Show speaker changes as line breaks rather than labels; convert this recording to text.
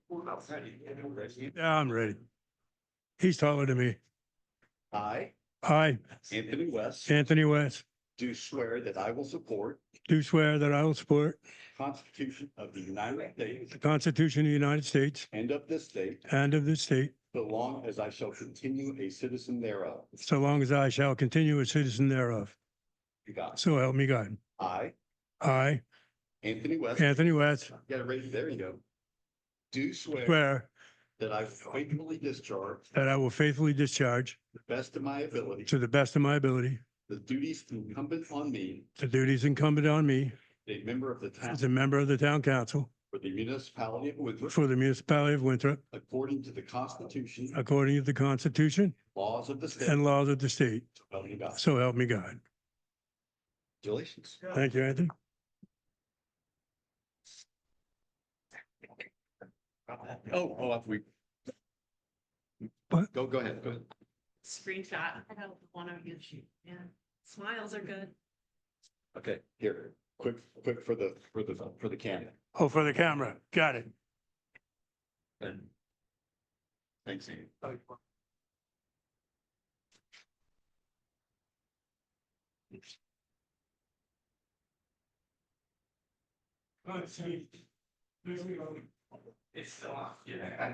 Yeah, I'm ready. He's taller than me.
I,
I,
Anthony West,
Anthony West,
do swear that I will support
do swear that I will support
the Constitution of the United States
the Constitution of the United States
and of this state,
and of this state,
so long as I shall continue a citizen thereof.
so long as I shall continue a citizen thereof.
You got it.
So help me God.
I,
I,
Anthony West,
Anthony West,
got it right, there you go. Do swear
swear
that I faithfully discharge to
that I will faithfully discharge
the best of my ability
to the best of my ability
the duties incumbent on me,
the duties incumbent on me
a member of the town
as a member of the town council
for the municipality of Winthrop,
for the municipality of Winthrop
according to the Constitution,
according to the Constitution
laws of the state.
and laws of the state.
Well, you got it.
So help me God.
Congratulations.
Thank you, Anthony.
Oh, oh, we.
What?
Go, go ahead, go ahead.
Screenshot, I don't want to use you, yeah, smiles are good.
Okay, here, quick, quick for the, for the, for the camera.
Oh, for the camera. Got it.
Thanks, Ian.
It's still off, yeah.